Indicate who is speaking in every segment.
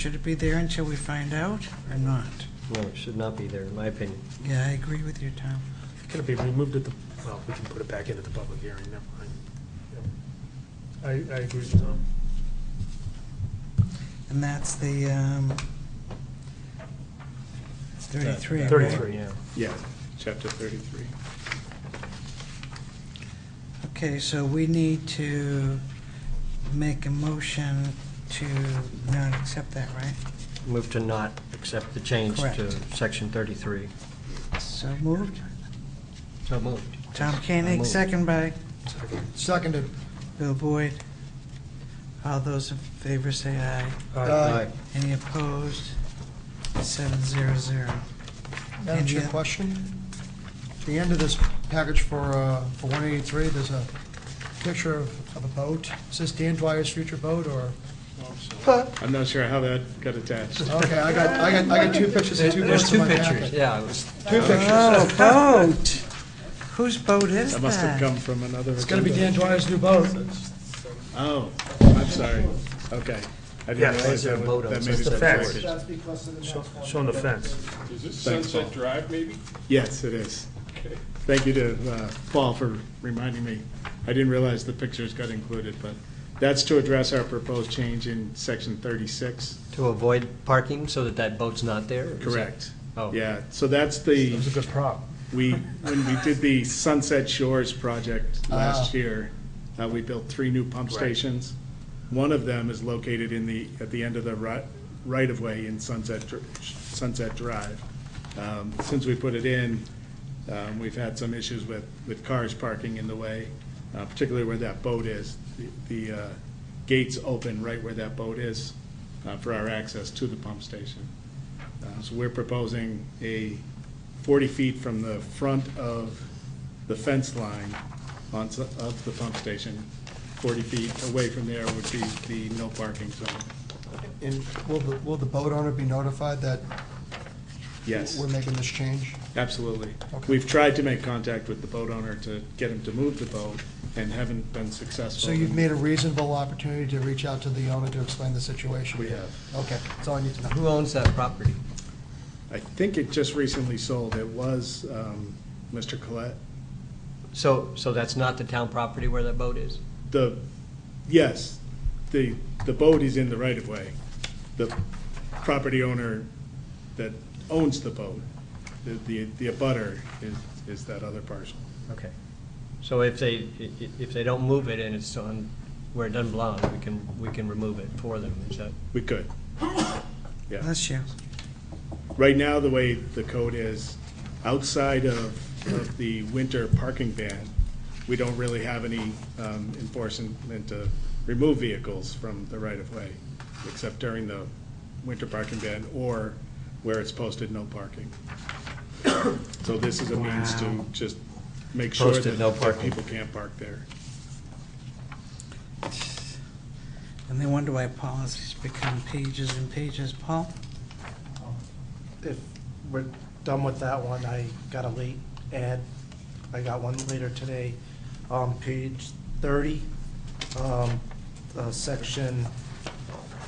Speaker 1: Should it be there until we find out or not?
Speaker 2: No, it should not be there, in my opinion.
Speaker 1: Yeah, I agree with you, Tom.
Speaker 3: Can it be removed at the, well, we can put it back into the public hearing, never mind. Yep. I, I agree with Tom.
Speaker 1: And that's the, um, it's 33. right?
Speaker 3: 33.
Speaker 2: Yeah.
Speaker 4: Yeah, chapter 33.
Speaker 1: Okay, so we need to make a motion to not accept that, right?
Speaker 2: Move to not accept the change to
Speaker 1: Correct.
Speaker 2: section 33.
Speaker 1: So moved.
Speaker 2: So moved.
Speaker 1: Tom
Speaker 2: I
Speaker 1: Koenig,
Speaker 2: move.
Speaker 1: second by
Speaker 5: Seconded.
Speaker 1: Bill Boyd. All those in favor say aye.
Speaker 5: Aye.
Speaker 1: Any opposed? Seven zero zero.
Speaker 5: Madam Chair,
Speaker 1: Yeah.
Speaker 5: question? At the end of this package for, uh, for 183, there's a picture of of a boat. Is this Dan Dwyer's future boat, or?
Speaker 4: I'm not sure how that got attached.
Speaker 5: Okay, I got, I got, I got two pictures of two
Speaker 2: There's
Speaker 5: boats in
Speaker 2: two
Speaker 5: my
Speaker 2: pictures,
Speaker 5: packet.
Speaker 2: yeah. it was-
Speaker 5: Two pictures.
Speaker 1: Oh, boat! Whose boat is that?
Speaker 4: That must have come from another.
Speaker 5: It's gonna be Dan
Speaker 4: agenda.
Speaker 5: Dwyer's new boat.
Speaker 4: Oh, I'm sorry. Okay. I
Speaker 3: Yeah,
Speaker 4: didn't realize
Speaker 2: there's a
Speaker 4: that
Speaker 2: vote
Speaker 4: would-
Speaker 2: on
Speaker 4: that
Speaker 2: it.
Speaker 4: made
Speaker 2: It's
Speaker 4: it.
Speaker 2: the
Speaker 4: that
Speaker 3: facts.
Speaker 4: way.
Speaker 3: Showing the fence.
Speaker 6: Is this
Speaker 4: Thanks,
Speaker 6: Sunset Drive, maybe?
Speaker 4: Yes, it is.
Speaker 6: Okay.
Speaker 4: Thank you to uh, Paul for reminding me. I didn't realize the pictures got included, but that's to address our proposed change in section 36.
Speaker 2: To avoid parking so that that boat's not there? is it?
Speaker 4: Correct.
Speaker 2: Oh.
Speaker 4: Yeah, so that's the.
Speaker 3: It was a good prop.
Speaker 4: We, when we did the Sunset Shores project last
Speaker 5: Ah.
Speaker 4: year, uh, we built three new pump
Speaker 3: Right.
Speaker 4: stations. One of them is located in the, at the end of the right, right-of-way in Sunset, Dr- Sunset Drive. Um, Since we put it in, um, we've had some issues with, with cars parking in the way, uh, particularly where that boat is. The the, uh, gates open right where that boat is uh, for our access to the pump station. Uh, So we're proposing a 40 feet from the front of the fence line on, s- of the pump station. 40 feet away from there would be the no parking zone.
Speaker 5: And will the, will the boat owner be notified that
Speaker 4: Yes,
Speaker 5: we're making this change?
Speaker 4: absolutely.
Speaker 5: Okay.
Speaker 4: We've tried to make contact with the boat owner to get him to move the boat and haven't been successful.
Speaker 5: So you've made a reasonable opportunity to reach out to the owner to explain the situation?
Speaker 4: We have.
Speaker 5: Okay, that's all I need to know.
Speaker 2: Who owns that property?
Speaker 4: I think it just recently sold. It was um, Mr. Colette.
Speaker 2: So, so that's not the town property where that boat is?
Speaker 4: The, yes, the, the boat is in the right of way. The property owner that owns the boat, the, the the abutter is, is that other parcel.
Speaker 2: Okay. So if they, i- i- if they don't move it and it's on where it doesn't belong, we can, we can remove it for them, is that?
Speaker 4: We could. Yeah.
Speaker 1: Bless you.
Speaker 4: Right now, the way the code is, outside of, of the winter parking ban, we don't really have any um, enforcement to remove vehicles from the right of way, except during the winter parking ban or where it's posted no parking. So this is a means to just make sure
Speaker 2: Posted
Speaker 4: that
Speaker 2: no
Speaker 4: that
Speaker 2: parking.
Speaker 4: people can't park there.
Speaker 1: And they wonder why policies become pages and pages. Paul?
Speaker 7: if we're done with that one, I got a late ad, I got one later today, on page thirty, um, uh, section,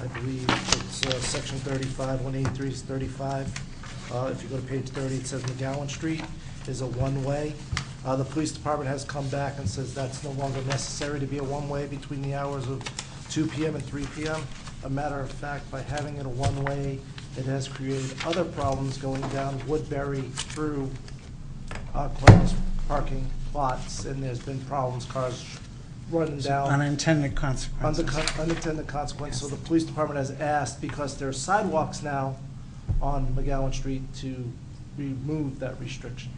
Speaker 7: I believe it's, uh, section thirty-five, one eighty-three is thirty-five. Uh, if you go to page thirty, it says McGowan Street is a one-way. Uh, the police department has come back and says that's no longer necessary to be a one-way between the hours of two PM and three PM. A matter of fact, by having it a one-way, it has created other problems going down Woodbury through uh, Glen's parking lots, and there's been problems, cars running down.
Speaker 1: Unintended consequences.
Speaker 7: Undeco- Unintended consequence, so the police department has asked, because there are sidewalks now on McGowan Street, to remove that restriction.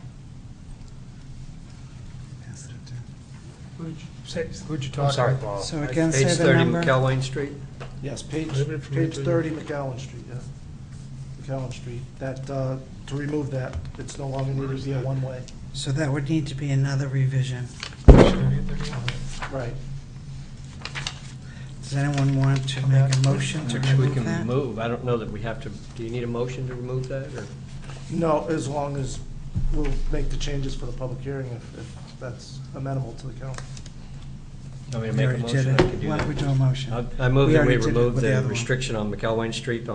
Speaker 5: Who'd you
Speaker 3: I'm
Speaker 5: talk
Speaker 3: sorry,
Speaker 5: to?
Speaker 3: Paul.
Speaker 1: So again, say
Speaker 2: Page
Speaker 1: the
Speaker 2: 30
Speaker 1: number.
Speaker 2: McElwain Street?
Speaker 7: Yes, page,
Speaker 3: Prohibited from
Speaker 7: page
Speaker 3: entering-
Speaker 7: thirty McGowan Street, yeah. McGowan Street, that, uh, to remove that, it's no longer needed to be a one-way.
Speaker 1: So that would need to be another revision.
Speaker 7: Right.
Speaker 1: Does anyone want to make a motion to
Speaker 2: Which we
Speaker 1: remove
Speaker 2: can
Speaker 1: that?
Speaker 2: move. I don't know that we have to, do you need a motion to remove that, or?
Speaker 7: No, as long as we'll make the changes for the public hearing, if, if that's amenable to the council.
Speaker 2: Want me
Speaker 1: We
Speaker 2: to make a
Speaker 1: already did
Speaker 2: motion? I
Speaker 1: it.
Speaker 2: can do
Speaker 1: Why don't we
Speaker 2: that.
Speaker 1: do a motion?
Speaker 2: I I move that
Speaker 1: already
Speaker 2: we
Speaker 1: did it
Speaker 2: remove
Speaker 1: with the
Speaker 2: the
Speaker 1: other one.
Speaker 2: restriction on McElwain Street